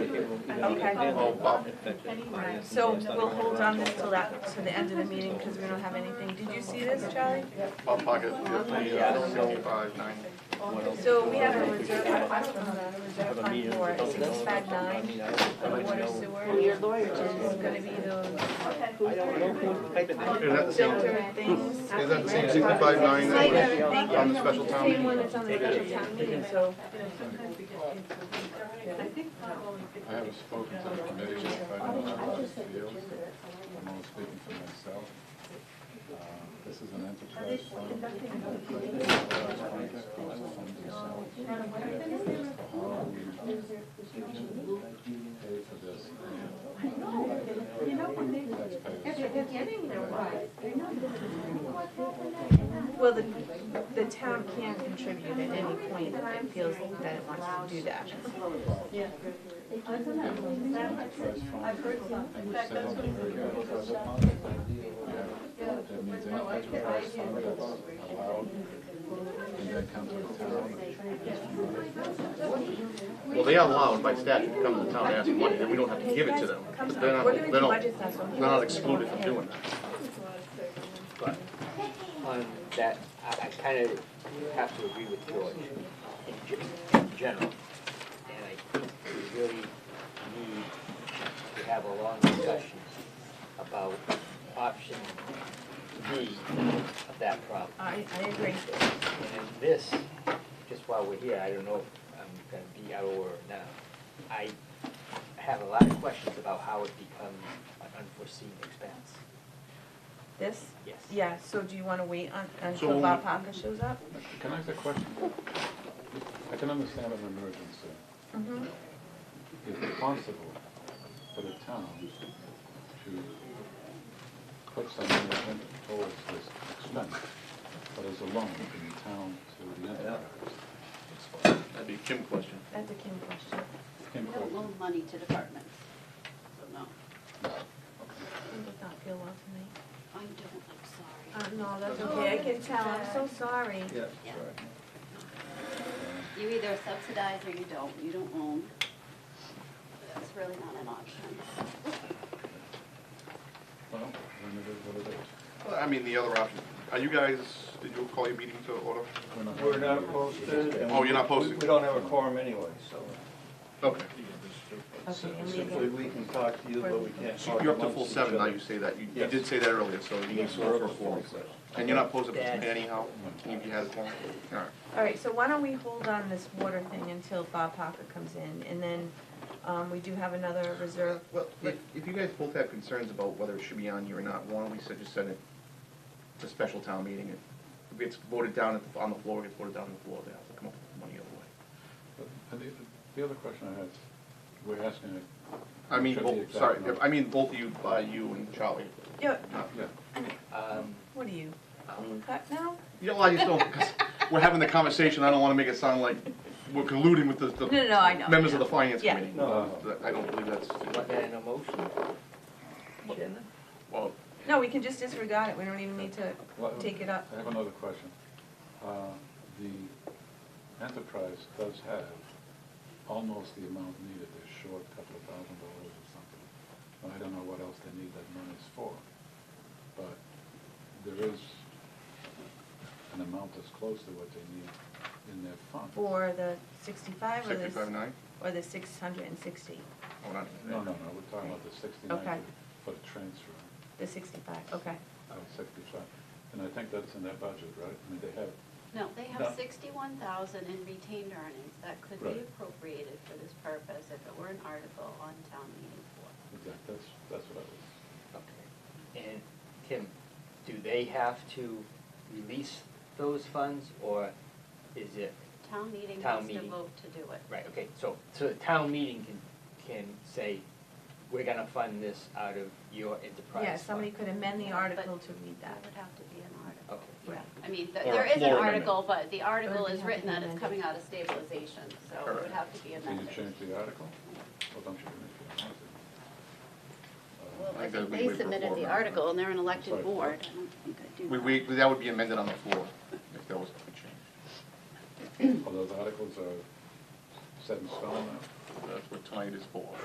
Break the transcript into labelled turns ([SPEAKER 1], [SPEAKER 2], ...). [SPEAKER 1] Okay.
[SPEAKER 2] Right.
[SPEAKER 1] So we'll hold on this till that, to the end of the meeting, because we don't have anything. Did you see this, Charlie?
[SPEAKER 3] Hot pocket, we have the sixty-five, ninety.
[SPEAKER 1] So we have a reserve, I don't know, a reserve fund for sixty-five nine, water sewer. Your lawyer. Is gonna be those
[SPEAKER 3] Is that the same, is
[SPEAKER 1] filter things.
[SPEAKER 3] that the same sixty-five, nine that was on the special town
[SPEAKER 1] Same one
[SPEAKER 3] meeting?
[SPEAKER 1] that's on the special town meeting, so.
[SPEAKER 3] I haven't spoken to the committee, if I don't know how it feels. I'm only speaking for myself. Uh, This is an enterprise fund. Pay for this. Taxpayers.
[SPEAKER 1] Well, the, the town can contribute at any point if it feels that it wants to do that.
[SPEAKER 3] That means any enterprise fund that's allowed can then come to the town.
[SPEAKER 4] Well, they are allowed by statute to come to the town and ask for money, and we don't have to give it to them. But they're not,
[SPEAKER 1] We're gonna
[SPEAKER 4] they're
[SPEAKER 1] do
[SPEAKER 4] not,
[SPEAKER 1] budgets next
[SPEAKER 4] they're
[SPEAKER 1] one.
[SPEAKER 4] not excluded from doing that. But
[SPEAKER 5] on that, I, I kind of have to agree with George in, ge- in general. And I think we really need to have a long discussion about option B of that problem.
[SPEAKER 1] I, I agree.
[SPEAKER 5] And in this, just while we're here, I don't know if I'm gonna be out of order now. I have a lot of questions about how it becomes an unforeseen expense.
[SPEAKER 1] This,
[SPEAKER 5] Yes.
[SPEAKER 1] yeah, so do you wanna wait on,
[SPEAKER 4] So-
[SPEAKER 1] until Bob Parker shows up?
[SPEAKER 3] Can I ask a question? I can understand an emergency.
[SPEAKER 1] Mm-hmm.
[SPEAKER 3] Is it possible for the town to put some money towards this expense, but as a loan from the town to the enterprise?
[SPEAKER 4] that'd be a Kim question.
[SPEAKER 1] That's a Kim question.
[SPEAKER 3] Kim
[SPEAKER 6] We don't
[SPEAKER 3] Corbin.
[SPEAKER 6] loan money to departments, so no,
[SPEAKER 1] He did not feel well tonight.
[SPEAKER 6] I don't, I'm
[SPEAKER 1] Uh, no, that's okay, I can tell, I'm so sorry.
[SPEAKER 4] Yeah.
[SPEAKER 6] sorry. You either subsidize or you don't, you don't loan. That's really not an option.
[SPEAKER 3] Well, then it is what it is.
[SPEAKER 4] Well, I mean, the other option, are you guys, did you call your meeting to order?
[SPEAKER 7] We're not posted. and
[SPEAKER 4] Oh, you're not posted.
[SPEAKER 7] we- We don't have a quorum anyway, so
[SPEAKER 4] Okay,
[SPEAKER 1] Okay, I'm
[SPEAKER 7] simply
[SPEAKER 1] leaving.
[SPEAKER 7] we can talk to you, but we can't
[SPEAKER 4] so
[SPEAKER 7] talk
[SPEAKER 4] you're up to
[SPEAKER 7] amongst
[SPEAKER 4] full
[SPEAKER 7] each
[SPEAKER 4] seven, now
[SPEAKER 7] other.
[SPEAKER 4] you say that, you, you
[SPEAKER 7] Yes.
[SPEAKER 4] did say that earlier, so you need to go for a forum. And you're not posted anyhow, if you had a forum? Alright.
[SPEAKER 1] All right, so why don't we hold on this water thing until Bob Parker comes in, and then, um, we do have another reserve.
[SPEAKER 4] Well, if, if you guys both have concerns about whether it should be on here or not, why don't we set- just send it to special town meeting? If it's voted down at the- on the floor, it gets voted down on the floor, they have to come up with money other way.
[SPEAKER 3] And the, the other question I had, we're asking it.
[SPEAKER 4] I mean,
[SPEAKER 3] Should be
[SPEAKER 4] both,
[SPEAKER 3] exact
[SPEAKER 4] sorry,
[SPEAKER 3] number.
[SPEAKER 4] I mean, both of you, uh, you and Charlie.
[SPEAKER 1] Yeah,
[SPEAKER 4] not-
[SPEAKER 3] Yeah.
[SPEAKER 5] Um,
[SPEAKER 1] what are you, on cut now?
[SPEAKER 4] You know, I just don't, because we're having the conversation, I don't wanna make it sound like we're colluding with the, the
[SPEAKER 1] No, no, no, I know.
[SPEAKER 4] members of the finance
[SPEAKER 1] Yeah.
[SPEAKER 4] committee.
[SPEAKER 7] No.
[SPEAKER 4] That- I don't believe that's,
[SPEAKER 5] want that in a motion? Shannon?
[SPEAKER 4] well,
[SPEAKER 1] No, we can just disregard it, we don't even need to
[SPEAKER 3] Well,
[SPEAKER 1] take it up.
[SPEAKER 3] I have another question. Uh, The enterprise does have almost the amount needed, they're short a couple of thousand dollars or something. And I don't know what else they need that money's for, but there is an amount that's close to what they need in their fund.
[SPEAKER 1] Or the sixty-five, or the,
[SPEAKER 4] sixty-five nine?
[SPEAKER 1] or the six hundred and sixty,
[SPEAKER 4] Oh, not,
[SPEAKER 3] No, no, no, we're talking about the
[SPEAKER 1] Okay.
[SPEAKER 3] sixty-nine for the transfer,
[SPEAKER 1] the sixty-five, okay.
[SPEAKER 3] uh, sixty-five. And I think that's in their budget, right? I mean, they have,
[SPEAKER 6] No, they
[SPEAKER 3] No.
[SPEAKER 6] have sixty-one thousand in retained earnings that could
[SPEAKER 3] Right.
[SPEAKER 6] be appropriated for this purpose if it were an article on town meeting floor.
[SPEAKER 3] exact- that's, that's what I was.
[SPEAKER 5] Okay. And Tim, do they have to release those funds, or is it,
[SPEAKER 6] Town meeting
[SPEAKER 5] Town
[SPEAKER 6] has to
[SPEAKER 5] meeting.
[SPEAKER 6] vote to do it.
[SPEAKER 5] right, okay, so, so the town meeting can, can say, we're gonna fund this out of your enterprise
[SPEAKER 1] Yeah, somebody
[SPEAKER 5] fund."
[SPEAKER 1] could amend the
[SPEAKER 6] But-
[SPEAKER 1] article to read
[SPEAKER 6] That
[SPEAKER 1] that.
[SPEAKER 6] would have to be an article.
[SPEAKER 5] Okay.
[SPEAKER 6] Yeah, I mean, th-
[SPEAKER 4] Or a
[SPEAKER 6] there is an
[SPEAKER 4] floor amendment.
[SPEAKER 6] article, but the article
[SPEAKER 1] Or we
[SPEAKER 6] is
[SPEAKER 1] have
[SPEAKER 6] written
[SPEAKER 1] to
[SPEAKER 6] that it's
[SPEAKER 1] amend it.
[SPEAKER 6] coming out of stabilization, so it would
[SPEAKER 4] Correct.
[SPEAKER 6] have to be
[SPEAKER 3] Can you
[SPEAKER 6] amended.
[SPEAKER 3] change the article? Well, don't you can if you want to. Uh,
[SPEAKER 4] I think we wait for floor amendment.
[SPEAKER 6] and they're an
[SPEAKER 3] Sorry.
[SPEAKER 6] I don't think I do
[SPEAKER 4] We,
[SPEAKER 6] that.
[SPEAKER 4] we, that would be amended on the floor if there was a change.
[SPEAKER 3] Uh, All those articles are set in stone now?
[SPEAKER 4] That's what tonight is for.